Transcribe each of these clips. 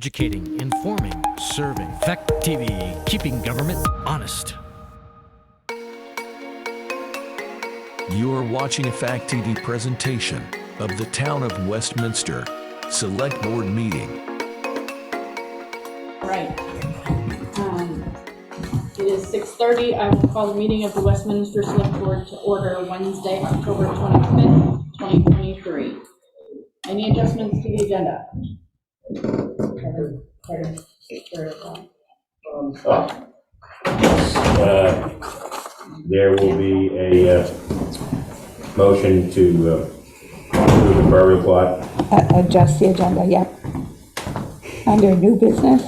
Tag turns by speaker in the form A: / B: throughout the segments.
A: Educating, informing, serving. Fact TV, keeping government honest.
B: You're watching a Fact TV presentation of the Town of Westminster Select Board Meeting.
C: Right. Um, It is 6:30. I will call the meeting of the Westminster Select Board to order Wednesday, October 25th, 2023. Any adjustments to the agenda? Kevin, Kevin, there it is.
D: Uh, There will be a uh, motion to uh, approve the burial plot.
E: Uh, adjust the agenda, yep. Under new business,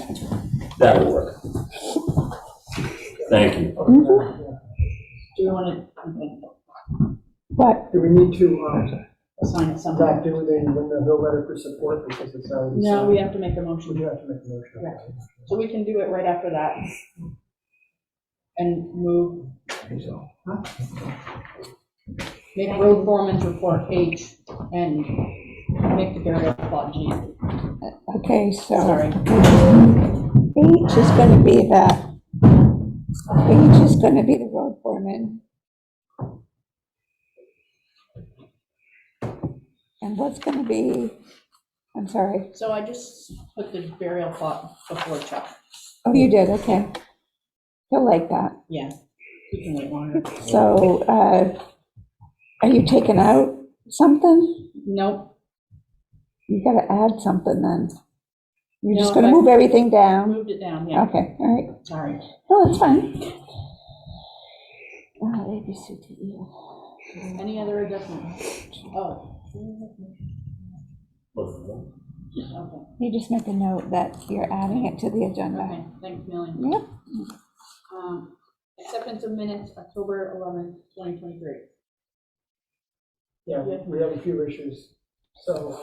D: That'll work. Thank you.
C: Do you want to
E: but
F: Do we need to um,
C: assign it somewhere?
F: back do the no letter for support because it's already?
C: No,
F: signed?
C: we have to make a motion.
F: We do have to make a motion.
C: So we can do it right after that. And move. Make road foreman's report H and make the burial plot G.
E: okay, so
C: Sorry.
E: H is gonna be the, H is gonna be the road foreman. And what's gonna be, I'm sorry,
C: So I just put the burial plot before Chuck.
E: oh, you did, okay. He'll like that.
C: Yeah. You can wait longer.
E: So, uh, are you taking out something?
C: Nope,
E: You gotta add something then. You're just
C: No,
E: gonna
C: I-
E: move everything down?
C: moved it down, yeah,
E: Okay, all right.
C: sorry.
E: No, that's fine. Uh, A, B, C, D, E, F.
C: Any other adjustments? Oh. Okay,
E: You just make a note that you're adding it to the agenda.
C: okay, thanks, Millie.
E: Yep,
C: Um, Acceptance of minutes, October 11th, 2023.
F: Yeah, we had- we had a few issues. So,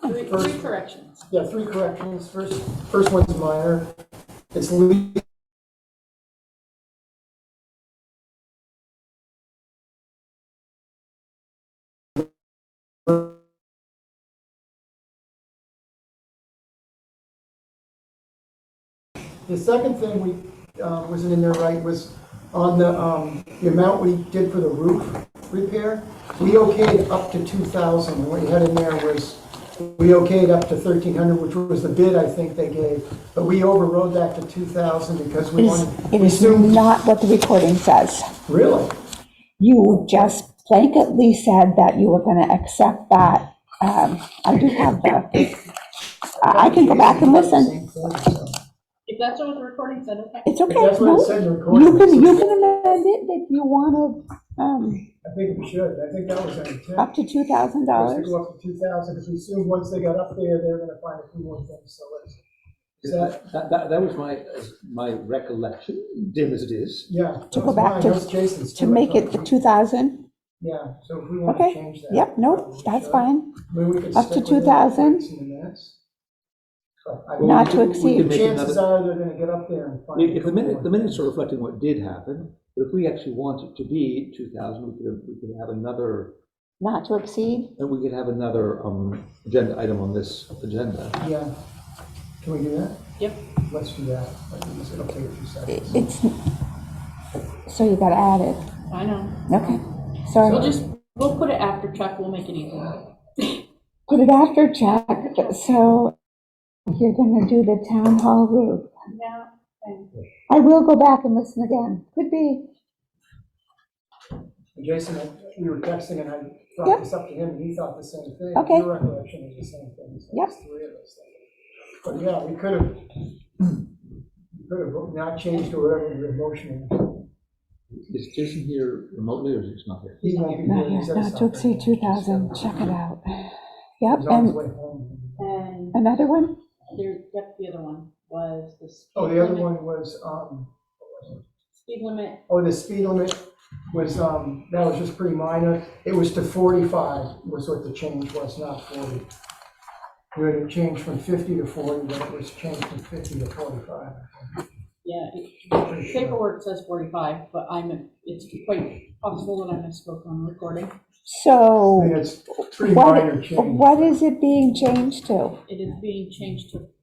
F: um,
C: Three three corrections.
F: yeah, three corrections. First, first one's minor. It's Lee The second thing we, uh, wasn't in there right was on the, um, the amount we did for the roof repair, we okayed up to 2,000, and what you had in there was, we okayed up to 1,300, which was the bid I think they gave, but we overrode that to 2,000 because
E: it
F: we
E: is,
F: wanted,
E: it
F: we
E: is
F: assumed,
E: not what the recording says.
F: really?
E: You just blanketly said that you were gonna accept that. Um, I do have the, I I can go back and listen.
C: If that's what the recording said, okay.
E: It's okay,
F: That's what it
E: no,
F: said in the
E: you
F: recording.
E: can, you can amend it if you wanna, um,
F: I think we should, I think that was our intent.
E: up to two thousand
F: Let's
E: dollars.
F: go up to 2,000, because we assumed once they got up there, they were gonna find a few more things, so let's, is that,
G: That, that, that was my, my recollection, dim as it is.
F: Yeah.
E: To go back to-
F: That's Jason's
E: To
F: too, I
E: make
F: thought.
E: it the two thousand?
F: Yeah, so if we want to
E: Okay,
F: change that.
E: yep,
F: we
E: nope, that's
F: should.
E: fine.
F: I mean, we could
E: Up to
F: stick with it
E: 2,000.
F: in the minutes. But I-
E: Not to
G: We could- we could
E: exceed.
G: make
F: Chances
G: another-
F: are they're going to get up there and find. a
G: If the
F: couple
G: minute, the
F: more.
G: minutes are reflecting what did happen, but if we actually want it to be two thousand, we could, we could have another,
E: Not to exceed?
G: and we could have another, um, agenda item on this agenda.
F: Yeah. Can we do that?
C: Yep.
F: Let's do that. I think it's- It'll take a few seconds.
E: It's, so you gotta add it.
C: I know.
E: Okay,
C: We'll
E: sorry.
C: just, we'll put it after Chuck, we'll make it easier.
E: Put it after Jack, so you're gonna do the town hall roof.
C: Yeah.
E: I will go back and listen again. Could be,
F: And Jason, I- we were texting and I
E: Yep.
F: brought this up to him and he thought the same thing.
E: Okay.
F: Your recollection is the same thing. so
E: Yep.
F: it's three of us. But yeah, we could have, we could have not changed or whatever your motion.
G: Is Jason here remotely or is he not here?
F: He's not gonna
E: not
F: do it, he's
E: here,
F: at
E: not to
F: something. uh,
E: exceed two thousand, check it out. Yep,
F: He's on
E: and
F: his way home.
C: And
E: another one?
C: there, yep, the other one was the speed
F: Oh, the other
C: limit-
F: one was, um,
C: Speed limit,
F: oh, the speed limit was, um, that was just pretty minor. It was to forty-five was what the change was, not forty. We had it changed from fifty to forty, but it was changed from fifty to forty-five.
C: yeah, it- paperwork says 45, but I'm, it's quite possible that I misspoke on the recording.
F: I mean,
E: So
F: it's pretty
E: what,
F: minor change.
E: what is it being changed to?
C: It is being changed to